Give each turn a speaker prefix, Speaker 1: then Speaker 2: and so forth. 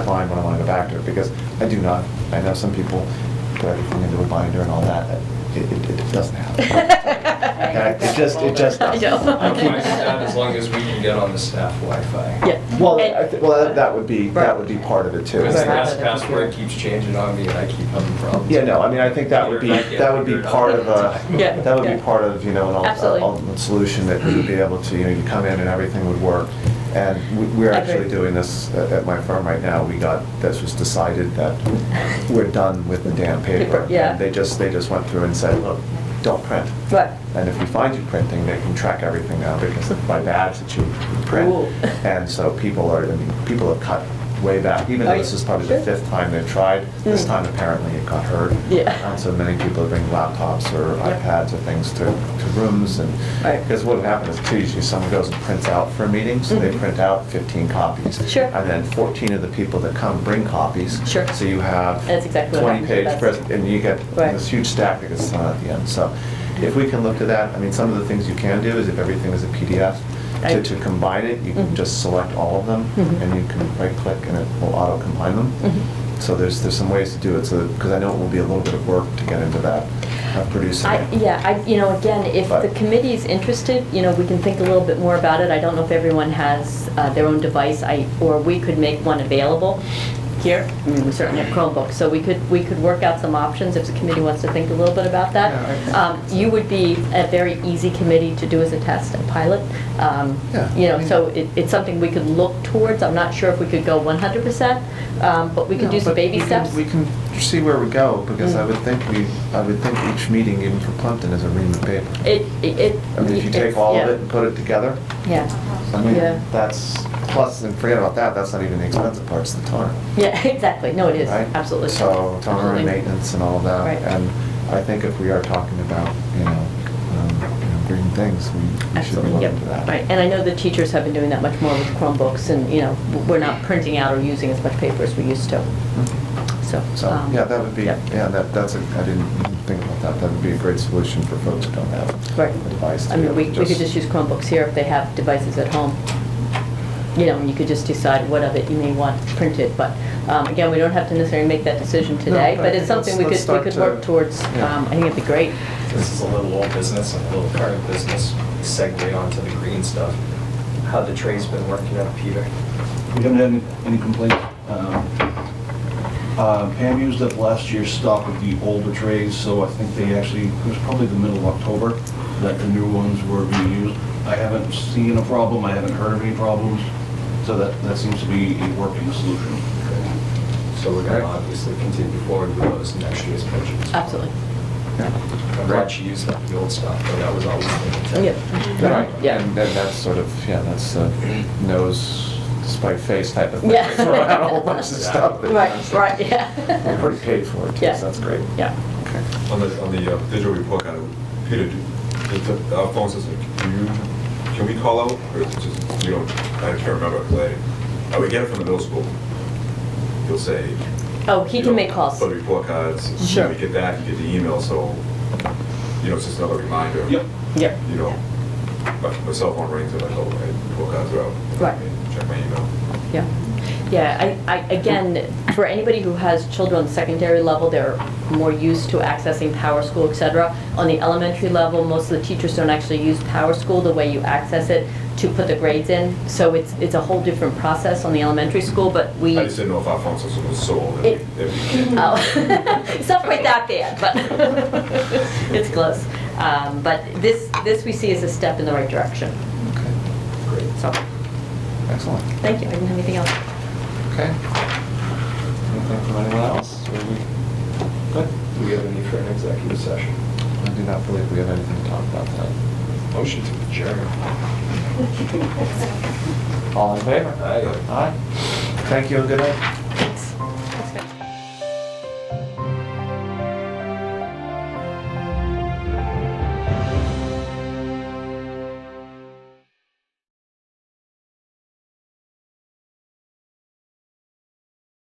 Speaker 1: find when I want to go back to it, because I do not, I know some people put everything into a binder and all that, it, it it doesn't happen.
Speaker 2: Yeah,
Speaker 1: It just, it just
Speaker 2: I
Speaker 1: doesn't.
Speaker 2: know.
Speaker 1: I
Speaker 3: I'm fine with
Speaker 1: keep-
Speaker 3: that as long as we can get on the staff Wi-Fi.
Speaker 2: Yeah.
Speaker 1: Well,
Speaker 2: And-
Speaker 1: I thi- well, that- that would be, that would be part of it too.
Speaker 3: Because
Speaker 1: And
Speaker 3: the
Speaker 1: I-
Speaker 3: pass- password keeps changing on me and I keep having problems.
Speaker 1: Yeah, no, I mean, I think that would be, that would be part of a,
Speaker 2: Yeah.
Speaker 1: that would
Speaker 2: Yeah.
Speaker 1: be part of, you know, an
Speaker 2: Absolutely.
Speaker 1: ul- ultimate solution that we would be able to, you know, you come in and everything would work. And we- we're actually
Speaker 2: Agreed.
Speaker 1: doing this at at my firm right now. We got, this was decided that we're done with the damn paper.
Speaker 2: Paper, yeah.
Speaker 1: And They just, they just went through and said, look, don't print.
Speaker 2: But,
Speaker 1: And if we find you printing, they can track everything now because of my badge that you print.
Speaker 2: Ooh.
Speaker 1: And so people are, I mean, people have cut way back, even though
Speaker 2: Are you
Speaker 1: this is probably the
Speaker 2: sure?
Speaker 1: fifth time they've tried. This
Speaker 2: Mm.
Speaker 1: time apparently it got heard.
Speaker 2: Yeah.
Speaker 1: And so many people are bringing laptops or
Speaker 2: Yep.
Speaker 1: iPads or things to, to rooms and,
Speaker 2: Right.
Speaker 1: because what would happen is too, usually someone goes and prints out for a meeting, so they
Speaker 2: Mhm.
Speaker 1: print out 15 copies.
Speaker 2: Sure.
Speaker 1: And then 14 of the people that come bring copies.
Speaker 2: Sure.
Speaker 1: So you have.
Speaker 2: That's exactly what happens with
Speaker 1: 20-page
Speaker 2: us.
Speaker 1: present, and you get
Speaker 2: Right.
Speaker 1: this huge stack that gets thrown at the end. So if we can look to that, I mean, some of the things you can do is if everything is a PDF,
Speaker 2: I-
Speaker 1: to, to combine it, you can
Speaker 2: Mhm.
Speaker 1: just select all of them,
Speaker 2: Mhm.
Speaker 1: and you can right-click and it will auto-combine them.
Speaker 2: Mm-hmm.
Speaker 1: So there's, there's some ways to do it, so, because I know it will be a little bit of work to get into that, uh, producing
Speaker 2: I,
Speaker 1: it.
Speaker 2: yeah, I, you know, again, if
Speaker 1: But-
Speaker 2: the committee's interested, you know, we can think a little bit more about it. I don't know if everyone has uh, their own device, I, or we could make one available here. I mean, we certainly have Chromebooks, so we could, we could work out some options if the committee wants to think a little bit about that.
Speaker 1: Yeah, I-
Speaker 2: Um, You would be a very easy committee to do as a test, and pilot. Um,
Speaker 1: Yeah,
Speaker 2: You
Speaker 1: I
Speaker 2: know,
Speaker 1: mean-
Speaker 2: so it, it's something we could look towards. I'm not sure if we could go 100%, um, but we could do
Speaker 1: No,
Speaker 2: some
Speaker 1: but
Speaker 2: baby
Speaker 1: we can-
Speaker 2: steps.
Speaker 1: We can see where we go, because I
Speaker 2: Mm.
Speaker 1: would think we, I would think each meeting, even for Plimpton, is a ream of paper.
Speaker 2: It, it- it.
Speaker 1: I mean, if you take
Speaker 2: it's-
Speaker 1: all of
Speaker 2: yeah.
Speaker 1: it and put it together,
Speaker 2: Yeah,
Speaker 1: I mean,
Speaker 2: Yeah.
Speaker 1: that's, plus, and forget about that, that's not even the expensive part, it's the toner,
Speaker 2: yeah, exactly, no, it is,
Speaker 1: right?
Speaker 2: absolutely.
Speaker 1: So toner
Speaker 2: Absolutely.
Speaker 1: and maintenance and all of that.
Speaker 2: Right.
Speaker 1: And I think if we are talking about, you know, um, you know, green things, we- we should be
Speaker 2: Absolutely,
Speaker 1: looking
Speaker 2: yep,
Speaker 1: into that.
Speaker 2: right, and I know the teachers have been doing that much more with Chromebooks, and, you know, we're not printing out or using as much paper as we used to, so.
Speaker 1: Mm-hmm. So,
Speaker 2: um,
Speaker 1: yeah, that would be,
Speaker 2: yep.
Speaker 1: yeah, that, that's, a I didn't think about that, that would be a great solution for folks who don't have
Speaker 2: Right.
Speaker 1: a device. to
Speaker 2: I
Speaker 1: be
Speaker 2: mean,
Speaker 1: able
Speaker 2: we
Speaker 1: to
Speaker 2: we could just use Chromebooks here if they have devices at home. You know, and you could just decide what of it you may want printed, but, um, again, we don't have to necessarily make that decision today,
Speaker 1: but I
Speaker 2: but
Speaker 1: think
Speaker 2: it's something we could,
Speaker 1: let's-
Speaker 2: we
Speaker 1: let's
Speaker 2: could
Speaker 1: start to-
Speaker 2: work towards,
Speaker 1: yeah.
Speaker 2: um, I think it'd be great.
Speaker 3: This is a little old business and a little current business, segue onto the green stuff. How the trade's been working out, Peter?
Speaker 4: We haven't had any- any complaints. Um, uh, Pam used up last year's stock of the older trays, so I think they actually, it was probably the middle of October that the new ones were being used. I haven't seen a problem, I haven't heard of any problems, so that, that seems to be a working solution.
Speaker 3: So we're gonna obviously continue forward with those next year's purchases.
Speaker 2: Absolutely,
Speaker 3: I'm glad she used up the old stuff, but that was always the intent.
Speaker 2: yeah.
Speaker 1: Right,
Speaker 2: Yeah.
Speaker 1: and then that's sort of, yeah, that's a nose despite face type of thing.
Speaker 2: Yeah.
Speaker 1: Throw out a whole bunch of stuff. that-
Speaker 2: Right, right,
Speaker 1: We
Speaker 2: yeah.
Speaker 1: already paid for it, too,
Speaker 2: Yeah.
Speaker 1: so that's great.
Speaker 2: Yeah.
Speaker 1: Okay.
Speaker 5: On the, on the uh, digital report card, Peter, do- is the- our phone system, can you, can we call out, or is it just, you know, I can't remember, 'cause I, I would Uh, get it from the middle school. He'll say.
Speaker 2: Oh, he
Speaker 5: you
Speaker 2: can
Speaker 5: know,
Speaker 2: make calls.
Speaker 5: For the report cards.
Speaker 2: Sure.
Speaker 5: We get that, you get the email, so, you know, it's just another reminder.
Speaker 4: Yep.
Speaker 2: Yep.
Speaker 5: You know, my, my cell phone rings, and I'm like, oh, right, report cards are out.
Speaker 2: Right.
Speaker 5: Check my email.
Speaker 2: Yeah, yeah, I, I, again, for anybody who has children on the secondary level, they're more used to accessing PowerSchool, School, et cetera. On the elementary level, most of the teachers don't actually use PowerSchool the way you access it to put the grades in. So it's, it's a whole different process on the elementary school, but we.
Speaker 5: I just didn't know if our phone system was so old that
Speaker 2: It-
Speaker 5: we- that we can't.
Speaker 2: Oh, it's not quite that bad, but it's close. Um, But this, this we see as a step in the right direction,
Speaker 1: Okay,
Speaker 3: Great.
Speaker 2: so,
Speaker 1: excellent,
Speaker 2: thank you, I didn't have anything else.
Speaker 1: okay. Anything from anyone else? Or we- Good.
Speaker 3: Do we have a need for an executive session?
Speaker 1: I do not believe we have anything to talk about that.
Speaker 3: Motion to adjourn.
Speaker 1: All in favor?
Speaker 3: Aye.
Speaker 1: Aye. Thank you and good night.